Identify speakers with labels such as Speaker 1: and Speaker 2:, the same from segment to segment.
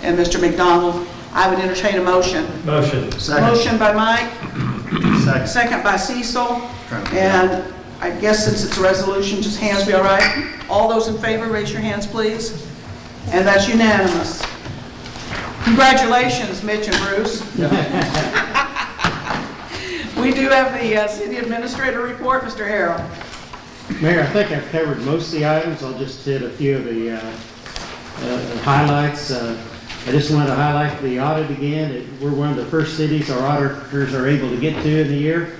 Speaker 1: and Mr. McDonald. I would entertain a motion.
Speaker 2: Motion.
Speaker 3: Second.
Speaker 1: Motion by Mike,
Speaker 3: Second.
Speaker 1: second by Cecil,
Speaker 3: Trying to figure out.
Speaker 1: and I guess since it's a resolution, just hands be all right. All those in favor, raise your hands, please. And that's unanimous. Congratulations, Mitch and Bruce. We do have the uh, city administrator report, Mr. Harrell.
Speaker 4: Mayor, I think I've covered most of the items, I'll just hit a few of the uh, uh, highlights. Uh, I just wanted to highlight the audit again, It- we're one of the first cities our auditors are able to get to in the year,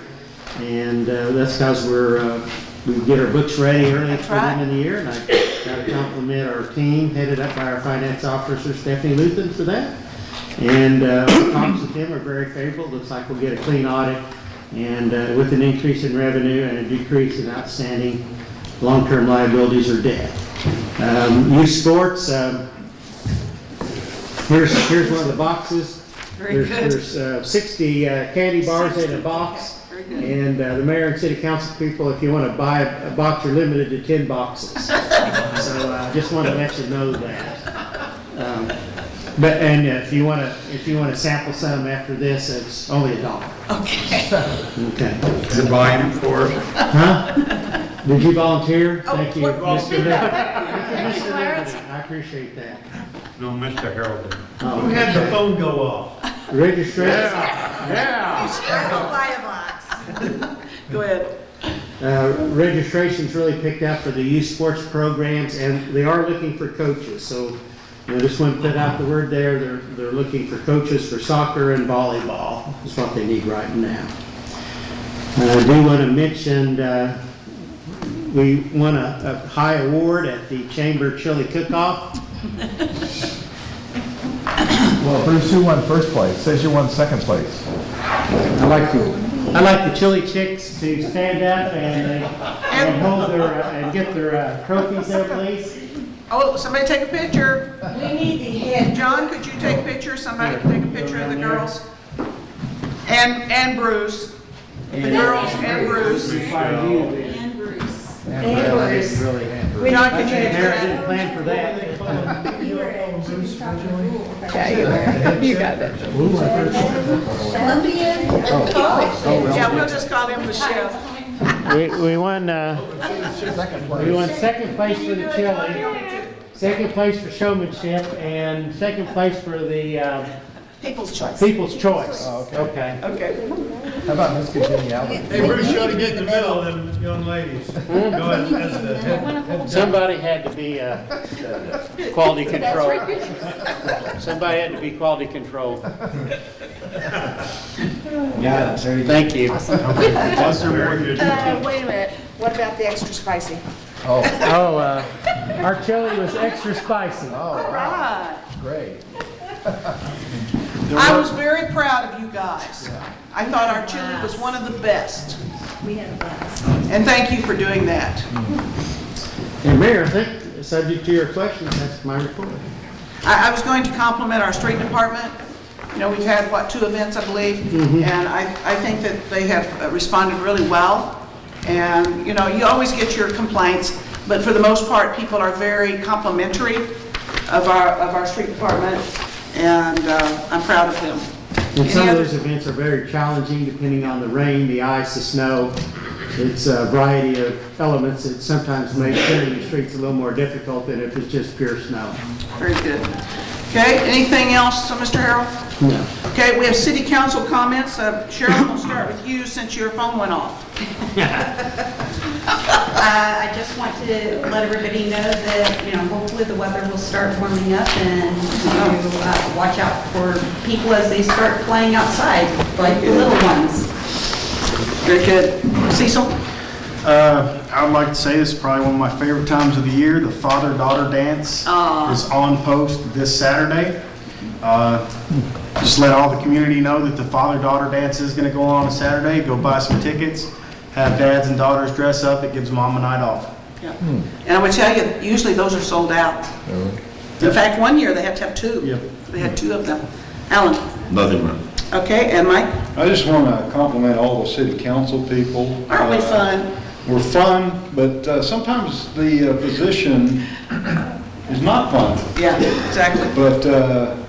Speaker 4: and uh, that's because we're, uh, we get our books ready early
Speaker 1: That's
Speaker 4: for them
Speaker 1: right.
Speaker 4: in the year, and I got to compliment our team headed up by our finance officer Stephanie Luthen for that. And uh, talks with them are very favorable, looks like we'll get a clean audit, and uh, with an increase in revenue and a decrease in outstanding long-term liabilities or debt. Um, Youth sports, um, here's, here's one of the boxes.
Speaker 1: Very
Speaker 4: There's-
Speaker 1: good.
Speaker 4: There's uh, 60 uh, candy bars in a
Speaker 1: 60,
Speaker 4: box.
Speaker 1: okay, very good.
Speaker 4: And uh, the mayor and city council people, if you want to buy a a box, you're limited to 10 boxes. So uh, I just wanted to let you know that. Um, But, and if you want to, if you want to sample some after this, it's only a dollar.
Speaker 1: Okay.
Speaker 4: Okay.
Speaker 3: Is it volume four?
Speaker 4: Huh? Did you volunteer?
Speaker 1: Oh,
Speaker 4: Thank you,
Speaker 1: what-
Speaker 4: Mr. Nick.
Speaker 5: Thank you, Clarence.
Speaker 4: I appreciate that.
Speaker 3: No, Mr. Harold.
Speaker 4: Oh,
Speaker 2: Who had the
Speaker 4: okay.
Speaker 2: phone go off?
Speaker 4: Registration.
Speaker 1: Go ahead.
Speaker 4: Uh, Registration's really picked up for the youth sports programs, and they are looking for coaches. So, you know, just want to put out the word there, they're, they're looking for coaches for soccer and volleyball, is what they need right now. Uh, I do want to mention, uh, we won a, a high award at the Chamber Chili Cook-Off.
Speaker 6: Well, Bruce, you won first place, says you won second place.
Speaker 4: I like the, I like the chili chicks to stand up and, uh, and hold their, uh, and get their uh, trophies there, please.
Speaker 1: Oh, somebody take a picture.
Speaker 5: We need the head.
Speaker 1: John, could you take pictures? Somebody can take a picture of the girls. And, and Bruce. The girls and Bruce.
Speaker 4: Fire you, man.
Speaker 5: And Bruce.
Speaker 4: Really,
Speaker 5: And
Speaker 4: really hampered.
Speaker 5: Bruce.
Speaker 1: John, could
Speaker 4: I
Speaker 1: you
Speaker 4: think Mayor
Speaker 1: picture
Speaker 4: didn't plan for that.
Speaker 5: You were at- you were talking to Rule.
Speaker 7: You got it.
Speaker 5: Columbia and
Speaker 1: that?
Speaker 5: College.
Speaker 1: Yeah, we'll just call him the chef.
Speaker 4: We, we won, uh,
Speaker 6: Second
Speaker 4: we
Speaker 6: place.
Speaker 4: won second place for the chili, second place for showmanship, and second place for the, uh,
Speaker 1: People's choice.
Speaker 4: people's choice.
Speaker 6: Oh, okay.
Speaker 4: Okay.
Speaker 1: Okay.
Speaker 6: How about Miss Congeniality?
Speaker 2: They were sure to get in the middle of them young ladies. Go ahead, that's the head- head judge.
Speaker 4: Somebody had to be, uh, uh, quality control. Somebody had to be quality control. Yeah, thank you.
Speaker 7: Uh, wait a minute, what about the extra spicy?
Speaker 6: Oh,
Speaker 4: Oh, uh, our chili was extra spicy.
Speaker 6: oh,
Speaker 1: Right.
Speaker 6: great.
Speaker 1: I was very proud of you guys. I thought our chili was one of the best.
Speaker 5: We had a blast.
Speaker 1: And thank you for doing that.
Speaker 4: And Mayor, I think, subject to your questions, that's my report.
Speaker 1: I, I was going to compliment our street department. You know, we've had, what, two events, I believe?
Speaker 4: Mm-hmm.
Speaker 1: And I, I think that they have uh, responded really well. And, you know, you always get your complaints, but for the most part, people are very complimentary of our, of our street department, and uh, I'm proud of them.
Speaker 4: And some
Speaker 1: Any
Speaker 4: of
Speaker 1: other-
Speaker 4: those events are very challenging depending on the rain, the ice, the snow. It's a variety of elements that sometimes make clearing the streets a little more difficult than if it's just pure snow.
Speaker 1: Very good. Okay, anything else, uh, Mr. Harrell?
Speaker 4: No.
Speaker 1: Okay, we have city council comments. Uh, Cheryl, we'll start with you since your phone went off.
Speaker 8: Uh, I just want to let everybody know that, you know, hopefully the weather will start warming up and you know, uh, watch out for people as they start playing outside, like the little ones.
Speaker 1: Very good. Cecil?
Speaker 3: Uh, I would like to say this is probably one of my favorite times of the year. The father-daughter dance is on post this Saturday. Uh, Just let all the community know that the father-daughter dance is going to go on on Saturday. Go buy some tickets, have dads and daughters dress up. It gives mom a night off.
Speaker 1: Yeah. And I would tell you, usually those are sold out. In fact, one year, they had to have two.
Speaker 3: Yep.
Speaker 1: They had two of them. Alan?
Speaker 9: Nothing wrong.
Speaker 1: Okay, and Mike?
Speaker 10: I just want to compliment all the city council people.
Speaker 1: Aren't we
Speaker 10: Uh,
Speaker 1: fun?
Speaker 10: We're fun, but uh, sometimes the uh, position is not fun.
Speaker 1: Yeah, exactly.
Speaker 10: But uh,